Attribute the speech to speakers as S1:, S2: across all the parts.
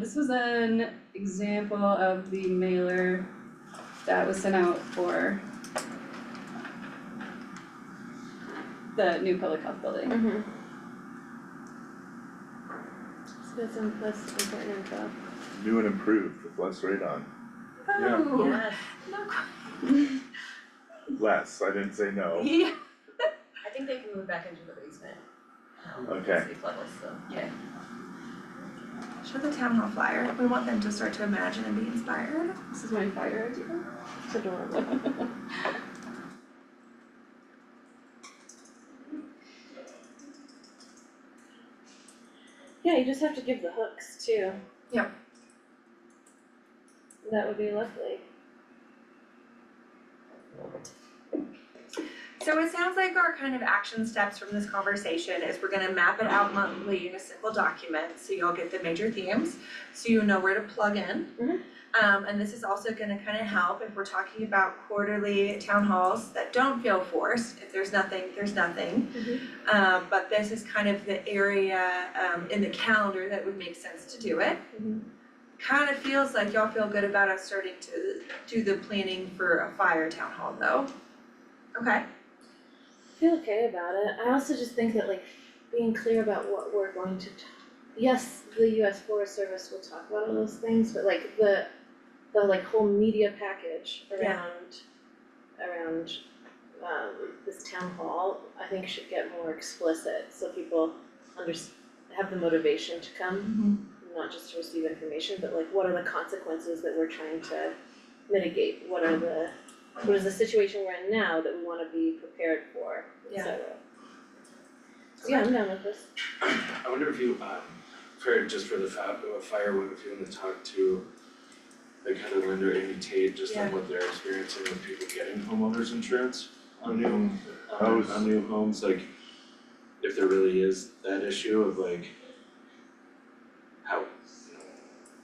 S1: This was an example of the mailer that was sent out for the new public health building.
S2: Mm-hmm. So that's, im- that's important info.
S3: New and improved with less radon,
S4: Yeah.
S5: Oh, Yes,
S3: less, I didn't say no,
S5: yeah. I think they can move back into the basement. um,
S3: Okay.
S5: Safe levels, so, yeah.
S6: Show the town hall flyer. We want them to start to imagine and be inspired.
S1: This is my fire idea.
S2: It's adorable. Yeah, you just have to give the hooks too.
S6: Yep.
S2: That would be lovely.
S6: So it sounds like our kind of action steps from this conversation is we're gonna map it out monthly in a simple document, so you'll get the major themes, so you know where to plug in.
S2: Mhm.
S6: Um, and this is also gonna kind of help if we're talking about quarterly town halls that don't feel forced, if there's nothing, there's nothing.
S2: Mhm.
S6: Um, but this is kind of the area, um, in the calendar that would make sense to do it.
S2: Mhm.
S6: Kind of feels like y'all feel good about us starting to do the planning for a fire town hall though. Okay.
S2: I feel okay about it. I also just think that like being clear about what we're going to talk. Yes, the US Forest Service will talk about all those things, but like the the like whole media package
S6: Yeah.
S2: around around um this town hall, I think should get more explicit so people under have the motivation to come, not just to receive information, but like what are the consequences that we're trying to mitigate? What are the what is the situation we're in now that we wanna be prepared for, et
S6: Yeah.
S2: cetera. So yeah, I'm down with this.
S4: I wonder if you, um, for, just for the fa- uh, fire one, if you wanna talk to the kind of lender Amy Tate, just on
S6: Yeah.
S4: what they're experiencing with people getting homeowners insurance on new,
S3: I
S4: on
S2: Um,
S3: was-
S4: on new homes, like if there really is that issue of like how,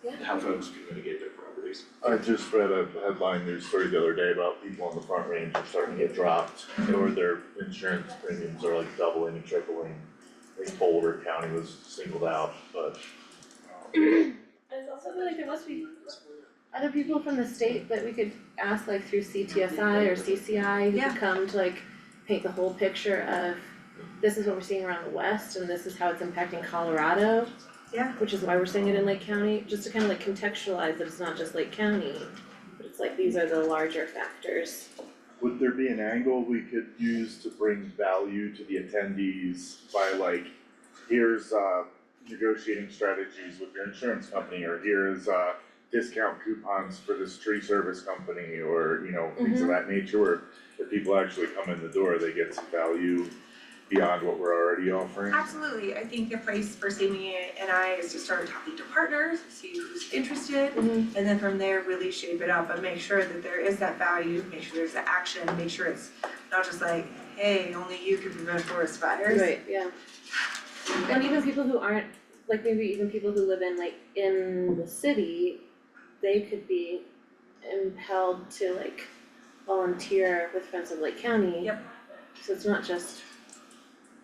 S4: you know,
S2: Yeah.
S4: how folks can mitigate their properties.
S3: I just read a headline news story the other day about people on the front range are starting to get dropped, or their insurance premiums are like doubling and tripling. I think Boulder County was singled out, but um,
S2: I just also feel like there must be other people from the state that we could ask like through CTSI or CCI who
S6: Yeah.
S2: could come to like paint the whole picture of this is what we're seeing around the west and this is how it's impacting Colorado.
S6: Yeah.
S2: Which is why we're seeing it in Lake County, just to kind of like contextualize that it's not just Lake County, but it's like these are the larger factors.
S3: would there be an angle we could use to bring value to the attendees by like, here's uh negotiating strategies with your insurance company, or here's uh discount coupons for this tree service company, or you know, things of that nature, where if people actually come in the door, they get some value beyond what we're already offering?
S6: Absolutely, I think the place for Sammy and I is to start talking to partners, see who's interested,
S2: Mhm.
S6: and then from there really shape it up and make sure that there is that value, make sure there's the action, make sure it's not just like, hey, only you can prevent forest fires.
S2: Right, yeah. And even people who aren't, like maybe even people who live in like in the city, they could be impelled to like volunteer with Friends of Lake County.
S6: Yep.
S2: So it's not just,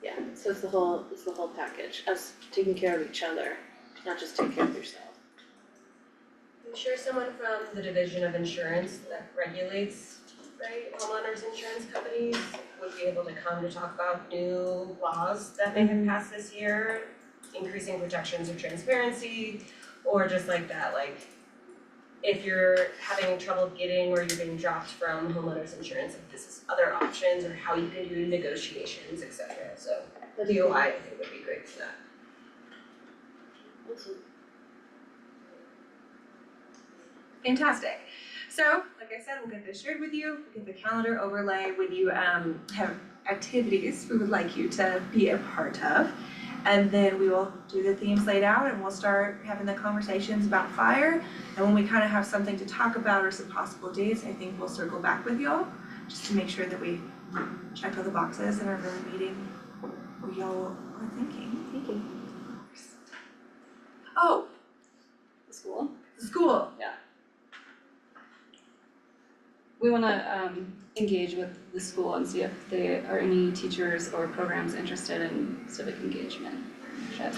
S2: yeah, so it's the whole, it's the whole package, us taking care of each other, not just take care of yourself.
S5: I'm sure someone from the division of insurance that regulates, right, homeowners insurance companies would be able to come to talk about new laws that they have passed this year, increasing protections or transparency, or just like that, like if you're having trouble getting or you're being dropped from homeowners insurance, if this is other options or how you can do negotiations, et cetera, so
S2: That'd be
S5: DOI I think would be great for that.
S2: awesome.
S6: Fantastic. So, like I said, we'll get this shared with you, we'll get the calendar overlay when you um have activities we would like you to be a part of. And then we will do the themes laid out and we'll start having the conversations about fire. And when we kind of have something to talk about or some possible dates, I think we'll circle back with y'all just to make sure that we check all the boxes and are really meeting what y'all are thinking.
S2: Thank you.
S6: Oh,
S1: The school.
S6: the school.
S1: We wanna um engage with the school and see if they are any teachers or programs interested in civic engagement. Should-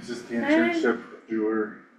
S3: Is this the internship doer